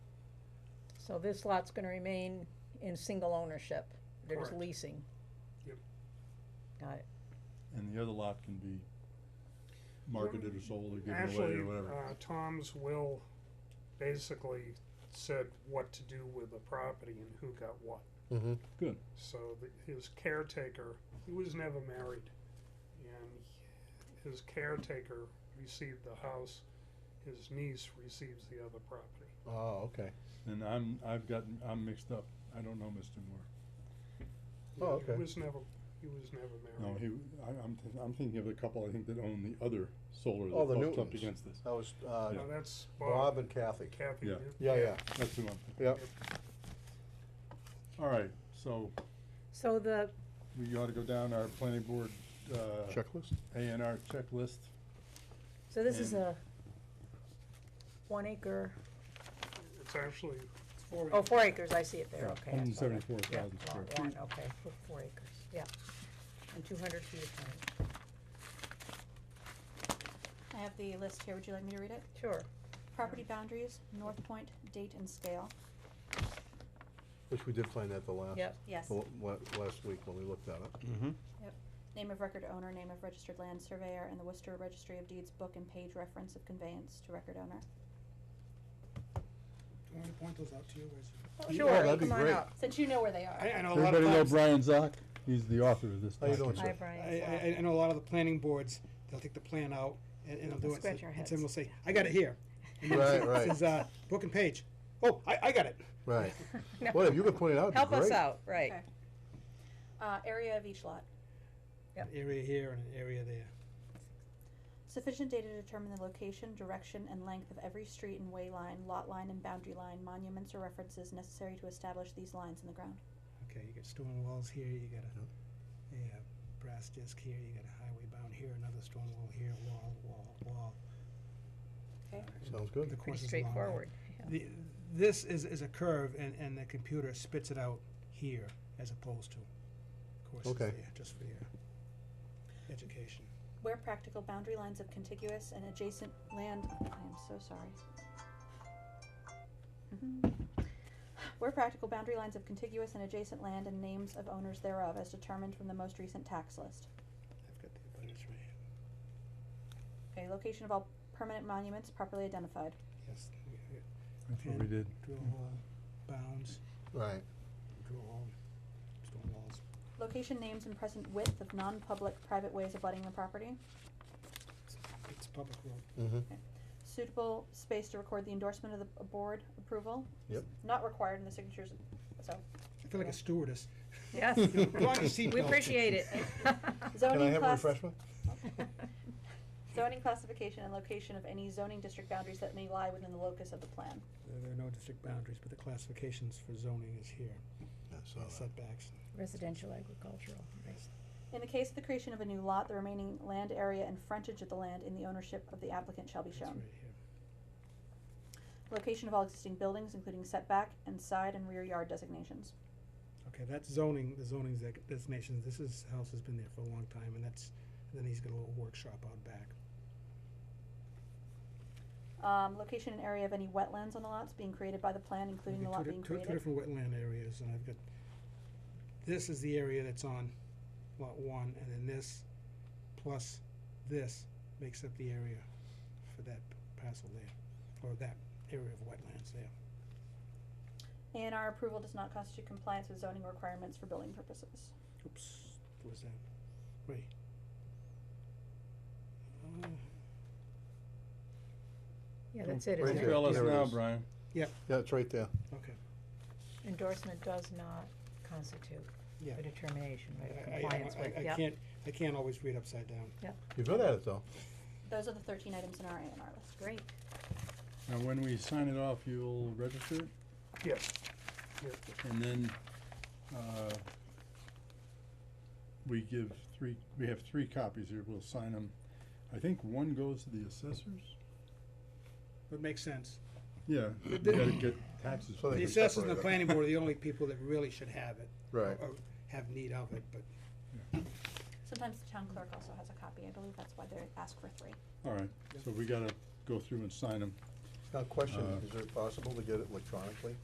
So this lot's gonna remain in single ownership, there's Correct. leasing. Yep. Got it, And the other lot can be marketed or sold or given away Actually, or whatever. uh, Tom's will basically said what to do with the property and who got what. Mm-hmm. So the, his caretaker, he was never married, and his caretaker received the house. His niece receives the other property. Oh, okay. And I'm, I've gotten, I'm mixed up. I don't know Mr. Moore. He- Oh, okay. He was never, he was never No, married. he, I, I'm, th- I'm thinking of the couple, I think, that own the other solar Oh, the that bumped up Newtons. against this. That was uh, No, that's Bob Bob, and Kathy. Kathy. Yeah. Newton. Yeah, yeah, That's who I'm, yeah. all right, so so the, we ought to go down our planning board, uh, Checklist? A and R checklist. so this is And- a one acre, It's actually oh, four acres, I see it there, okay. Hundred I saw and that. seventy-four thousand Yeah, square lot feet. one, okay, for four acres, yeah, and two hundred feet of frontage. I have the list here, would you like me to read it? Sure, Property boundaries, North Point, date and scale. Which we did find that the last, yep, Yes. the la- last week when we looked at it. Name of record owner, name of registered land surveyor, and the Worcester Registry of Deeds book and page reference of conveyance to record owner. Do you want me to point those out to you? Where's Oh, sure, that'd be come on great. up. Since you know where they are. I, I know a lot Everybody of know times, I, Brian Zock? He's the author of this How you doing, document. sir? Hi, Brian. I, I know a lot of the planning boards, they'll take the plan out and, and they'll do it. Scratch so- our And heads. someone will say, I got it here. And then it Right, says- right. It says, uh, book and page. Oh, I, I got it. Right. No. Well, if you could point it out, it'd be Help us great. out, right, Okay. Uh, area of each lot. Yep. Area here and an area there. Sufficient data to determine the location, direction, and length of every street and way line, lot line, and boundary line, monuments or references necessary to establish these lines in the ground. Okay, you got stone walls here, you got a, yeah, brass disc here, you got a highway bound here, another stone wall here, wall, wall, wall. Okay. Sounds good. pretty The course is long. straightforward, The, this is, is a curve and, and the computer spits it out here as opposed to course is Okay. there, just for your education. Where practical, boundary lines of contiguous and adjacent land, I am so sorry. Mhm. Where practical, boundary lines of contiguous and adjacent land and names of owners thereof as determined from the most recent tax list. I've got the abundance right here. Okay, location of all permanent monuments properly identified. Yes, we- we That's what we did. drill hole, bounds, Right. drill hole, stone walls. Location, names, and present width of non-public private ways abutting the property. It's public road. Mm-hmm. Suitable space to record the endorsement of the board approval. Yep. Not required in the signatures, so. I feel like a stewardess. yes, Put on your we seatbelt. appreciate it. Can I Zoning have a class, refreshment? zoning classification and location of any zoning district boundaries that may lie within the locus of the plan. There there are no district boundaries, but the classifications for zoning is here, Yeah, so that- setbacks. Residential agricultural, right. In the case of the creation of a new lot, the remaining land area and frontage of the land in the ownership of the applicant shall be That's right shown. here. Location of all existing buildings, including setback and side and rear yard designations. Okay, that's zoning, the zoning's dec- designations, this is, house has been there for a long time, and that's, then he's got a little workshop out back. Um, location and area of any wetlands on the lots being created by the plan, including the Okay, lot two di- being two- created. Two different wetland areas, and I've got, this is the area that's on lot one, and then this plus this makes up the area for that parcel there, or that area of wetlands there. And our approval does not constitute compliance with zoning requirements for building purposes. Oops, what was that? Wait. Uh, Yeah, that's it, isn't Right it? here. Tell us There it now, is. Brian. Yeah, it's right there. Okay, Endorsement does not constitute yeah. a determination, right, of I- I- I- compliance I- with, I yeah. can't, I can't always read upside down. You're good at it, though. Those are the thirteen items in our A and R list. Great, Now, when we sign it off, you'll register it? Yes. And then, uh, we give three, we have three copies here, we'll sign them. I think one goes to the assessors? Would make sense. Yeah, you gotta get taxes. So The they- can assessors and separate the it. planning board are the only people that really should have it. Right. Or have need of it, but Sometimes the town clerk also has a copy, I believe that's why they ask for three. Alright, so we gotta go through and sign them. Now, question, Uh, is it possible to get it electronically?